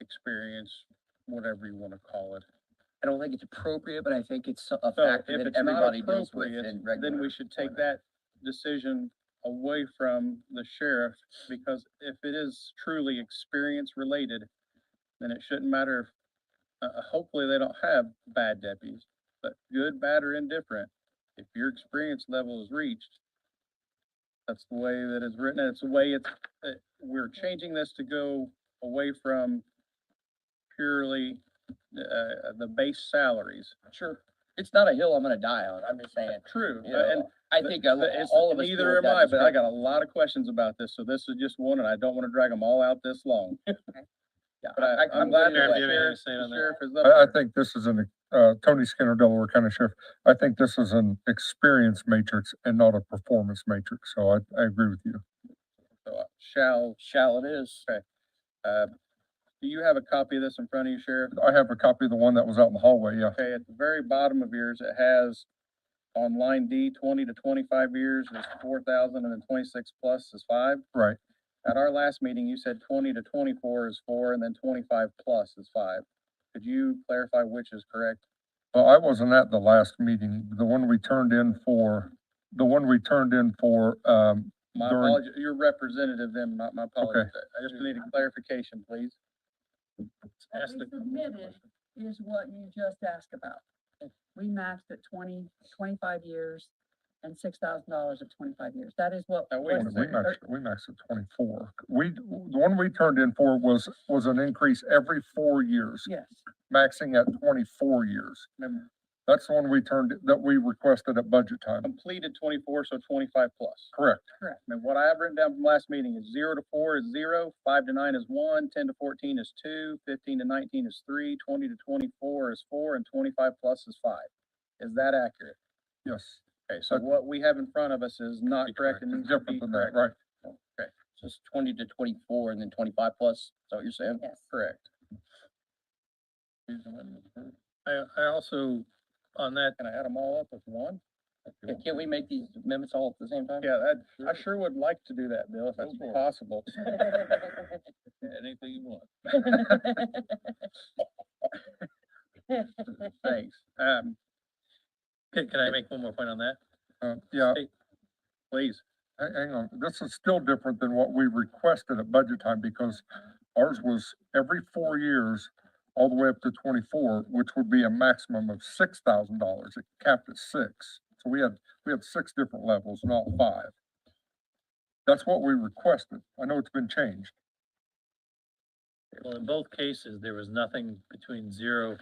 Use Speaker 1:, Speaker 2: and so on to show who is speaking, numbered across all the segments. Speaker 1: experience, whatever you wanna call it.
Speaker 2: I don't think it's appropriate, but I think it's so- a
Speaker 1: So
Speaker 2: factor
Speaker 1: if
Speaker 2: that
Speaker 1: it's not
Speaker 2: everybody deals with
Speaker 1: appropriate,
Speaker 2: in
Speaker 1: Then
Speaker 2: regular.
Speaker 1: we should take
Speaker 2: employment.
Speaker 1: that decision away from the sheriff, because if it is truly experience related, then it shouldn't matter. if- Uh, uh, hopefully they don't have bad deputies, but good, bad, or indifferent, if your experience level is reached, that's the way that it's written, and it's the way it's, uh, we're changing this to go away from purely, uh, the base salaries.
Speaker 2: Sure, it's not a hill I'm gonna die on, I'm just saying,
Speaker 1: True,
Speaker 2: you
Speaker 1: uh, and
Speaker 2: know, I
Speaker 1: but-
Speaker 2: think a
Speaker 1: but
Speaker 2: lo-
Speaker 1: it's-
Speaker 2: all of us.
Speaker 1: Neither
Speaker 2: feel
Speaker 1: am
Speaker 2: that
Speaker 1: I, but I
Speaker 2: respect.
Speaker 1: got a lot of questions about this, so this is just one, and I don't wanna drag them all out this long.
Speaker 2: Yeah,
Speaker 1: But
Speaker 2: I-
Speaker 1: I,
Speaker 2: I-
Speaker 1: I'm glad
Speaker 2: good with
Speaker 1: that the
Speaker 2: that.
Speaker 1: sheriff, the sheriff is up
Speaker 3: I, I
Speaker 1: there.
Speaker 3: think this is an, uh, Tony Skinner, Delaware County Sheriff, I think this is an experience matrix and not a performance matrix, so I, I agree with you.
Speaker 1: So, uh, Shall,
Speaker 2: Shall it is.
Speaker 1: uh, do you have a copy of this in front of you, Sheriff?
Speaker 3: I have a copy of the one that was out in the hallway, yeah.
Speaker 1: Okay, at the very bottom of yours, it has on line D, twenty to twenty-five years is four thousand, and then twenty-six plus is five.
Speaker 3: Right.
Speaker 1: At our last meeting, you said twenty to twenty-four is four, and then twenty-five plus is five. Could you clarify which is correct?
Speaker 3: Well, I wasn't at the last meeting, the one we turned in for, the one we turned in for, um,
Speaker 1: My
Speaker 3: during-
Speaker 1: apologies, your representative then, not my apologies. I I just need a clarification, please.
Speaker 4: What
Speaker 1: Ask
Speaker 4: we
Speaker 1: the-
Speaker 4: submitted is what you just asked about. We matched at 20, 25 years and six thousand dollars at twenty-five years. That is what.
Speaker 1: Now, wait
Speaker 3: we
Speaker 1: a
Speaker 4: what is
Speaker 1: second.
Speaker 4: it?
Speaker 3: maxed, we maxed at twenty-four. We, the one we turned in for was, was an increase every four years,
Speaker 4: Yes,
Speaker 3: maxing at twenty-four years.
Speaker 1: Remember,
Speaker 3: That's the one we turned, that we requested at budget time,
Speaker 1: Completed twenty-four, so twenty-five plus.
Speaker 3: correct?
Speaker 1: And what I have written down from last meeting is zero to four is zero, five to nine is one, ten to fourteen is two, fifteen to nineteen is three, twenty to twenty-four is four, and twenty-five plus is five. Is that accurate?
Speaker 3: Yes.
Speaker 1: Okay, so
Speaker 3: Okay.
Speaker 1: what we have in front of us is not correct and needs to be
Speaker 3: Different than that,
Speaker 1: correct.
Speaker 3: right?
Speaker 2: So it's twenty to twenty-four and then twenty-five plus, is that what you're saying?
Speaker 4: yes.
Speaker 1: Correct. uh,
Speaker 5: I, I also, on that,
Speaker 1: Can I add them all up with one?
Speaker 2: Yeah, Can't we make these amendments all at the same time?
Speaker 1: Yeah, that, I sure would like to do that, Bill, if that's
Speaker 2: Go for it.
Speaker 1: possible. Anything you want. Thanks. Um,
Speaker 5: can, can I make one more point on that?
Speaker 3: Uh, yeah,
Speaker 1: please.
Speaker 3: ha- hang on, this is still different than what we requested at budget time because ours was every four years, all the way up to twenty-four, which would be a maximum of six thousand dollars, it capped at six. So we had, we had six different levels, not five. That's what we requested, I know it's been changed.
Speaker 5: Well, in both cases, there was nothing between zero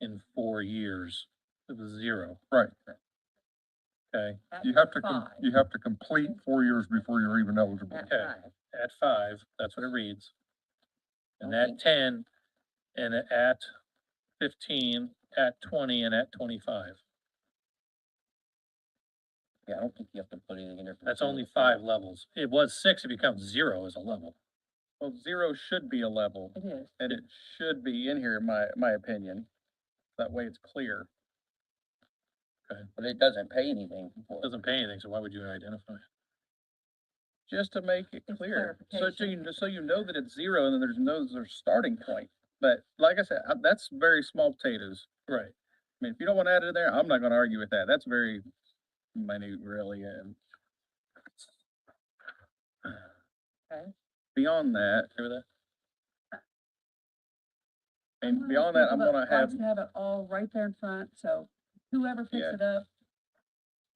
Speaker 5: and four years. It was zero.
Speaker 3: Right.
Speaker 5: Okay,
Speaker 4: That's
Speaker 3: You have to, com-
Speaker 4: five.
Speaker 3: you have to complete four years before you're even eligible.
Speaker 4: That's
Speaker 5: okay.
Speaker 4: five.
Speaker 5: at five, that's what it reads. And
Speaker 2: Okay.
Speaker 5: at ten, and at fifteen, at twenty, and at twenty-five.
Speaker 2: Yeah, I don't think you have to put anything in there. for
Speaker 5: That's
Speaker 2: two.
Speaker 5: only five levels. It was six, it becomes zero as a level.
Speaker 1: Well, zero should be a level.
Speaker 4: It is.
Speaker 1: And it should be in here, in my, my opinion. That way it's clear.
Speaker 2: But it doesn't pay anything for it.
Speaker 5: Doesn't pay anything, so why would you identify it?
Speaker 1: just to make it
Speaker 4: It's
Speaker 1: clear. So, so you,
Speaker 4: clarification.
Speaker 1: kn- so you know that it's zero and then there's no, there's a starting point. But like I said, I- that's very small potatoes.
Speaker 5: Right.
Speaker 1: I mean, if you don't want to add it in there, I'm not gonna argue with that. That's very minute really and.
Speaker 4: Okay.
Speaker 1: Beyond that,
Speaker 5: Okay with that?
Speaker 1: and
Speaker 4: Someone
Speaker 1: beyond
Speaker 4: else
Speaker 1: that, I'm
Speaker 4: people
Speaker 1: gonna
Speaker 4: that
Speaker 1: have,
Speaker 4: likes to Have it all right there in front, so whoever picks
Speaker 1: Yeah.
Speaker 4: it up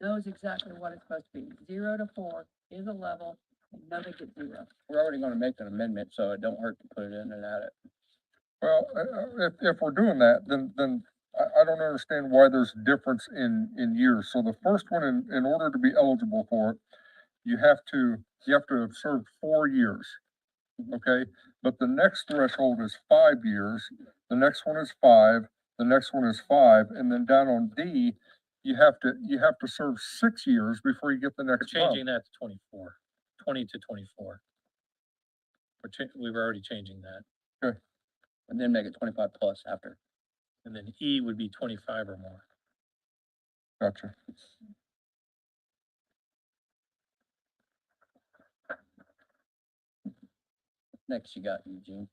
Speaker 4: knows exactly what it's supposed to be. Zero to four is a level, and nobody gets zero.
Speaker 2: We're already gonna make an amendment, so it don't hurt to put it in and add it.
Speaker 3: Well, uh, uh, if, if we're doing that, then, then I, I don't understand why there's difference in, in years. So the first one, in, in order to be eligible for it, you have to, you have to have served four years. Okay, but the next threshold is five years, the next one is five, the next one is five, and then down on D, you have to, you have to serve six years before you get the
Speaker 5: We're
Speaker 3: next
Speaker 5: changing that
Speaker 3: bump.
Speaker 5: to twenty-four, twenty to twenty-four. We're cha- we were already changing that,
Speaker 2: And then make it twenty-five plus after.
Speaker 5: and then E would be twenty-five or more.
Speaker 3: Gotcha.
Speaker 2: Next you got Eugene.